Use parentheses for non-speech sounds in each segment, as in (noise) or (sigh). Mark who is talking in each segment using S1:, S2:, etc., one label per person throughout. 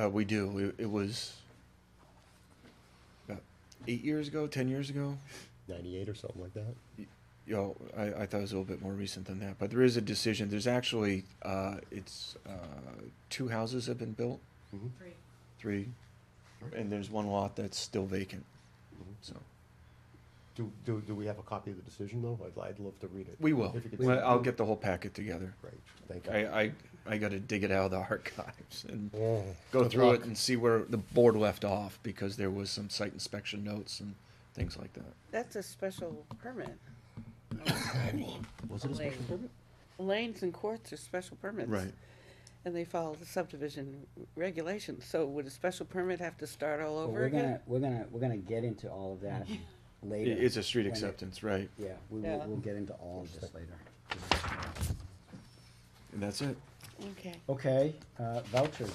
S1: Uh, we do. It, it was about eight years ago, ten years ago.
S2: 98 or something like that.
S1: You know, I, I thought it was a little bit more recent than that, but there is a decision. There's actually uh, it's uh, two houses have been built,
S3: Three.
S1: three, and there's one lot that's still vacant. So
S2: Do, do, do we have a copy of the decision, though? I'd, I'd love to read it.
S1: we will.
S2: If you could
S1: I-
S2: send it
S1: I'll
S2: to-
S1: get the whole packet together.
S2: Great, thank
S1: I
S2: you.
S1: I, I got to dig it out of the archives (laughs) and
S2: Oh,
S1: go
S2: good
S1: through it
S2: luck.
S1: and see where the board left off because there was some site inspection notes and things like that.
S4: That's a special permit.
S2: Was it a special
S4: Lane.
S2: permit?
S4: Lanes and courts are special permits.
S1: Right.
S4: And they follow the subdivision regulations, so would a special permit have to start all
S5: Well,
S4: over
S5: we're
S4: again?
S5: gonna, we're gonna, we're gonna get into all of that later.
S1: It- It's a street
S5: when it-
S1: acceptance, right?
S5: Yeah, we will,
S4: Yeah.
S5: we'll get into all of this later.
S1: And that's it.
S4: Okay.
S5: Okay, uh, vouchers.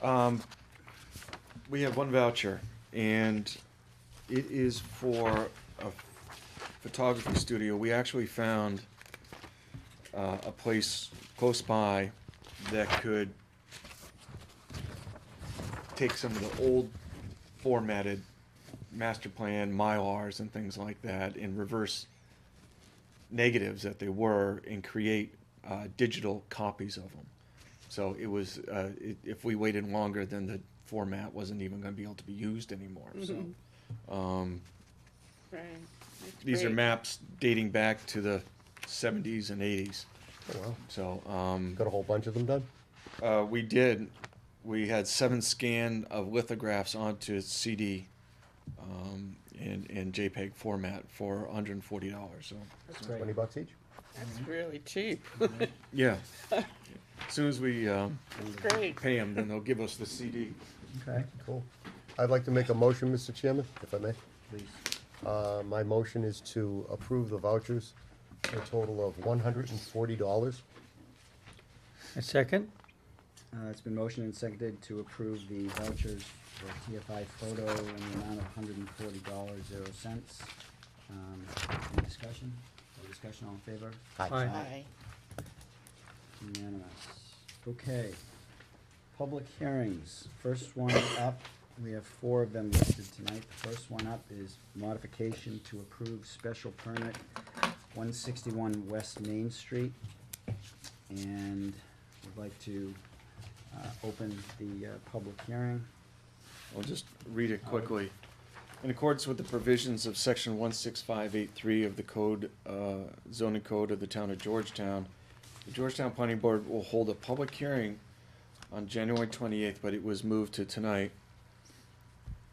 S1: Um, We have one voucher, and it is for a photography studio. We actually found uh, a place close by that could take some of the old formatted master plan mylars and things like that and reverse negatives that they were and create uh, digital copies of them. So it was, uh, i if we waited longer, then the format wasn't even going to be able to be used anymore. So um,
S4: Right.
S1: these are maps
S4: maps.
S1: dating back to the 70s and 80s.
S2: Oh, wow.
S1: So um,
S2: Got a whole bunch of them done?
S1: uh, we did. We had seven scan of lithographs onto CD um, and, and JPEG format for $140. So
S5: Great.
S2: 20 bucks each?
S4: That's really cheap. (laughs)
S1: yeah, as soon as we um,
S4: It's great.
S1: pay them, then they'll give us the CD.
S5: Okay,
S2: Cool. I'd like to make a motion, Mr. Chairman, if I may.
S5: please.
S2: Uh, my motion is to approve the vouchers, a total of one hundred and forty dollars.
S6: A second?
S5: Uh, it's been motioned and seconded to approve the vouchers for TFI Photo in the amount of hundred and forty dollars, zero cents. Um, any discussion? No discussion, all in favor?
S6: Aye.
S4: Aye.
S5: Unanimous. Okay. Public hearings. First one up, we have four of them listed tonight. The first one up is modification to approve special permit one sixty-one West Main Street. And would like to, uh, open the, uh, public hearing.
S1: I'll just read it quickly. In accordance with the provisions of section one six five eight three of the code, uh, zoning code of the town of Georgetown, the Georgetown Planning Board will hold a public hearing on January twenty-eighth, but it was moved to tonight.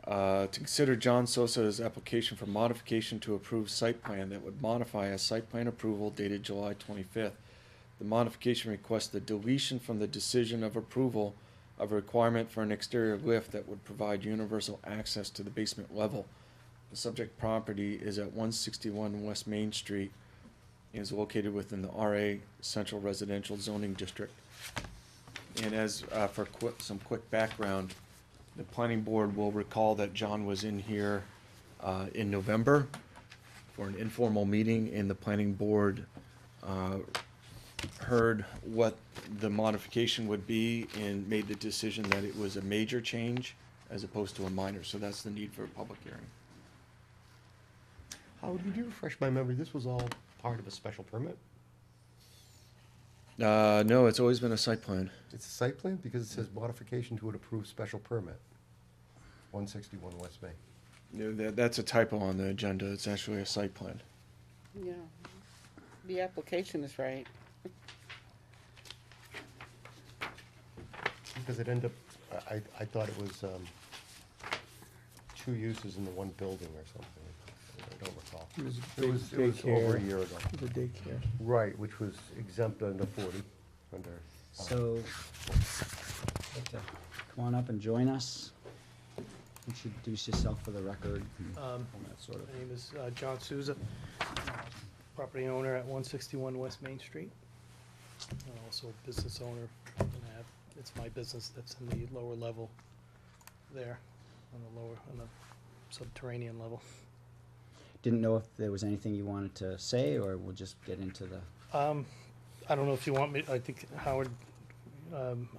S1: Uh, to consider John Sosa's application for modification to approved site plan that would modify a site plan approval dated July twenty-fifth. The modification requests the deletion from the decision of approval of a requirement for an exterior lift that would provide universal access to the basement level. The subject property is at one sixty-one West Main Street and is located within the RA Central Residential Zoning District. And as, uh, for quick, some quick background, the planning board will recall that John was in here, uh, in November for an informal meeting and the planning board, uh, heard what the modification would be and made the decision that it was a major change as opposed to a minor, so that's the need for a public hearing.
S2: Howard, would you refresh my memory? This was all part of a special permit?
S1: Uh, no, it's always been a site plan.
S2: It's a site plan because it says modification to an approved special permit. One sixty-one West Main.
S1: No, that, that's a typo on the agenda, it's actually a site plan.
S4: Yeah. The application is right.
S2: Because it ended up, I, I- I thought it was, um, two uses in the one building or something. I don't recall.
S6: It was a
S2: It was, it was over a
S6: daycare.
S2: year ago.
S6: The daycare.
S2: Right, which was exempt under forty, under. uh,
S5: So, come on up and join us. Introduce yourself for the record. and
S7: Um,
S5: all that sort of-
S7: My name is uh, John Souza, property owner at 161 West Main Street. And also a business owner, and I have, it's my business that's in the lower level there, on the lower, on the subterranean level.
S5: Didn't know if there was anything you wanted to say, or we'll just get into the.
S7: Um, I don't know if you want me, I think Howard, um,